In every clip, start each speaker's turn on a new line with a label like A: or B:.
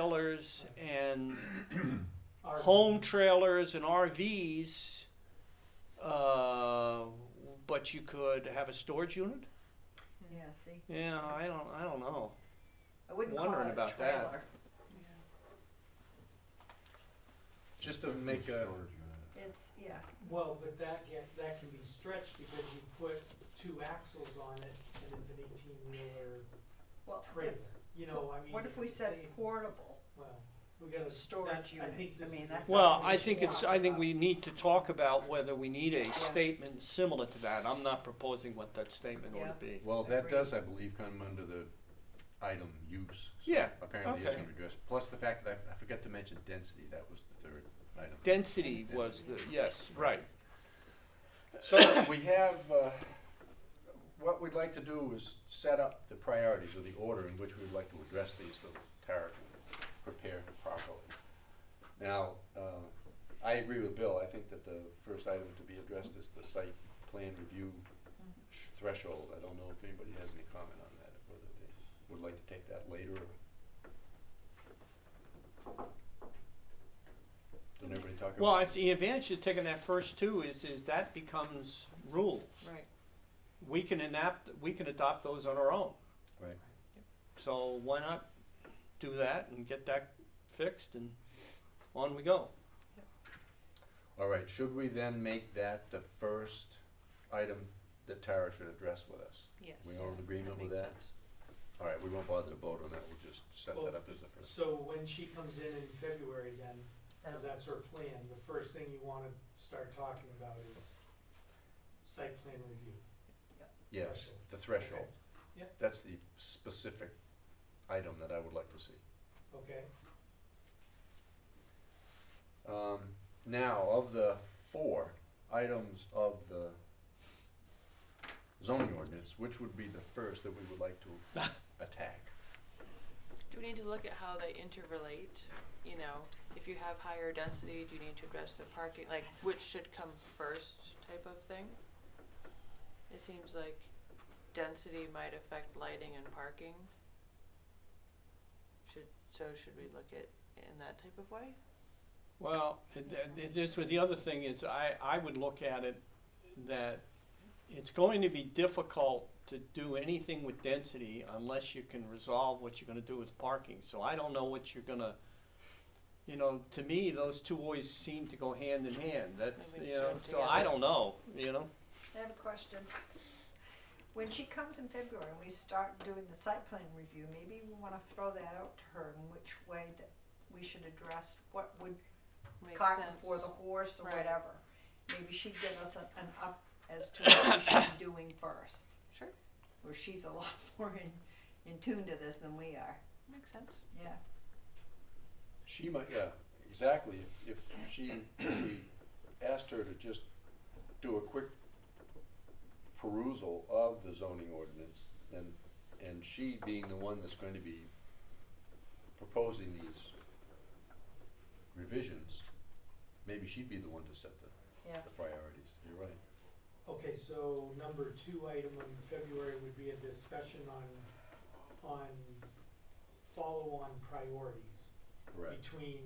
A: trailers and
B: Our-
A: home trailers and RVs, uh, but you could have a storage unit.
C: Yeah, see,
A: Yeah, I don't, I don't know.
C: I wouldn't call
A: Wondering
C: it a
A: about that.
C: trailer.
D: Just to make a,
C: It's, yeah,
B: Well, but that get, that can be stretched because you put two axles on it and it's an eighteen wheeler
C: well,
B: trailer, you know, I mean.
C: what if
B: it's
C: we
B: the
C: said
B: same-
C: portable?
B: Well, we gotta,
C: Storage
B: that's, I
C: unit.
B: think
C: I
B: this
C: mean,
B: is.
C: that's-
A: Well,
B: exactly
A: I
B: what
A: think
B: you
A: it's,
B: want.
A: I think we need to talk about whether we need a statement similar to that. I'm not proposing what that statement ought to be.
D: well, that
C: Agreed.
D: does, I believe, come under the item use. So
A: Yeah,
D: Apparently it's
A: okay.
D: gonna be addressed, plus the fact that I, I forgot to mention density, that was the third item.
A: Density was the, yes, right.
D: So we have, uh, what we'd like to do is set up the priorities or the order in which we'd like to address these so Tara can prepare properly. Now, uh, I agree with Bill, I think that the first item to be addressed is the site plan review sh- threshold. I don't know if anybody has any comment on that, whether they would like to take that later or. Did everybody talk about?
A: Well, I- the advantage of taking that first two is, is that becomes rules.
E: Right.
A: We can enact, we can adopt those on our own.
D: Right.
A: So why not do that and get that fixed and on we go.
D: All right, should we then make that the first item that Tara should address with us?
E: Yes.
D: We all in agreement with
E: makes
D: that?
E: sense.
D: All right, we won't bother to vote on that, we'll just set
B: Well-
D: that up as the first.
B: So when she comes in in February then, cause that's her plan, the first thing you wanna start talking about is site plan review.
D: Yes, the threshold.
B: Yeah.
D: That's the specific item that I would like to see.
B: Okay,
D: Um, now, of the four items of the zoning ordinance, which would be the first that we would like to attack?
F: Do we need to look at how they interrelate? You know, if you have higher density, do you need to address the parking, like which should come first type of thing? It seems like density might affect lighting and parking. Should, so should we look at in that type of way?
A: Well, th- th- this, was- the other thing is, I, I would look at it that it's going to be difficult to do anything with density unless you can resolve what you're gonna do with parking. So I don't know what you're gonna, you know, to me, those two always seem to go hand in hand. That's,
F: Maybe
A: you know,
F: so
A: so I
F: together.
A: don't know, you know?
C: I have a question. When she comes in February and we start doing the site plan review, maybe we wanna throw that out to her in which way that we should address what would
F: Makes
C: cart
F: sense.
C: before the horse or
F: Right.
C: whatever. Maybe she'd give us an, an up as to what we should be doing first,
F: Sure,
C: where she's a lot more in, in tune to this than we are,
F: makes sense.
C: yeah.
D: She might, yeah, exactly. If if she, we asked her to just do a quick perusal of the zoning ordinance, and, and she being the one that's going to be proposing these revisions, maybe she'd be the one to set the,
C: Yeah.
D: the priorities. You're right.
B: okay, so number two item in February would be a discussion on, on follow-on priorities.
D: Correct.
B: between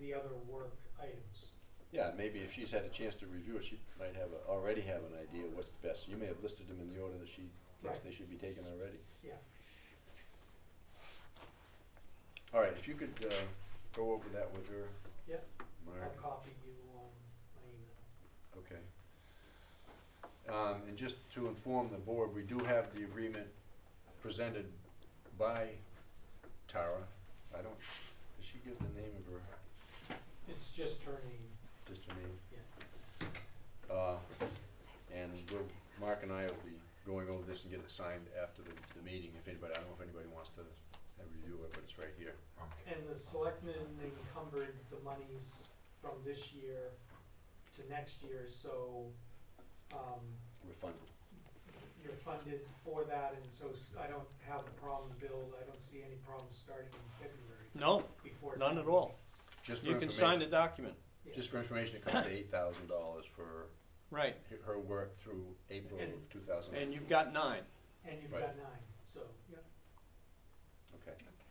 B: the other work items.
D: Yeah, maybe if she's had a chance to review it, she might have, a- already have an idea what's the best. You may have listed them in the order that she thinks
B: Right.
D: they should be taken already.
B: Yeah.
D: All right, if you could uh, go over that with her.
B: Yep. I'll
D: Mark,
B: copy you on my email.
D: okay. Um, And just to inform the board, we do have the agreement presented by Tara. I don't, does she give the name of her,
B: It's just her name.
D: just her name? Uh, And we'll, Mark and I will be going over this and get it signed after the, the meeting, if anybody, I don't know if anybody wants to have a review of it, but it's right here.
B: And the selectmen encumbered the monies from this year to next year, so, um,
D: We're funded.
B: you're funded for that, and so s- I don't have a problem, Bill, I don't see any problem starting in February
A: No,
B: before.
A: none at all.
D: Just for
A: You can sign the
D: information,
A: document,
B: Yeah.
D: just for information, it comes to eight thousand dollars for
A: right,
D: her- her work through April of two thousand.
A: and you've got nine.
B: And you've
D: Right.
B: got nine, so, yeah.
D: Okay.
C: Okay.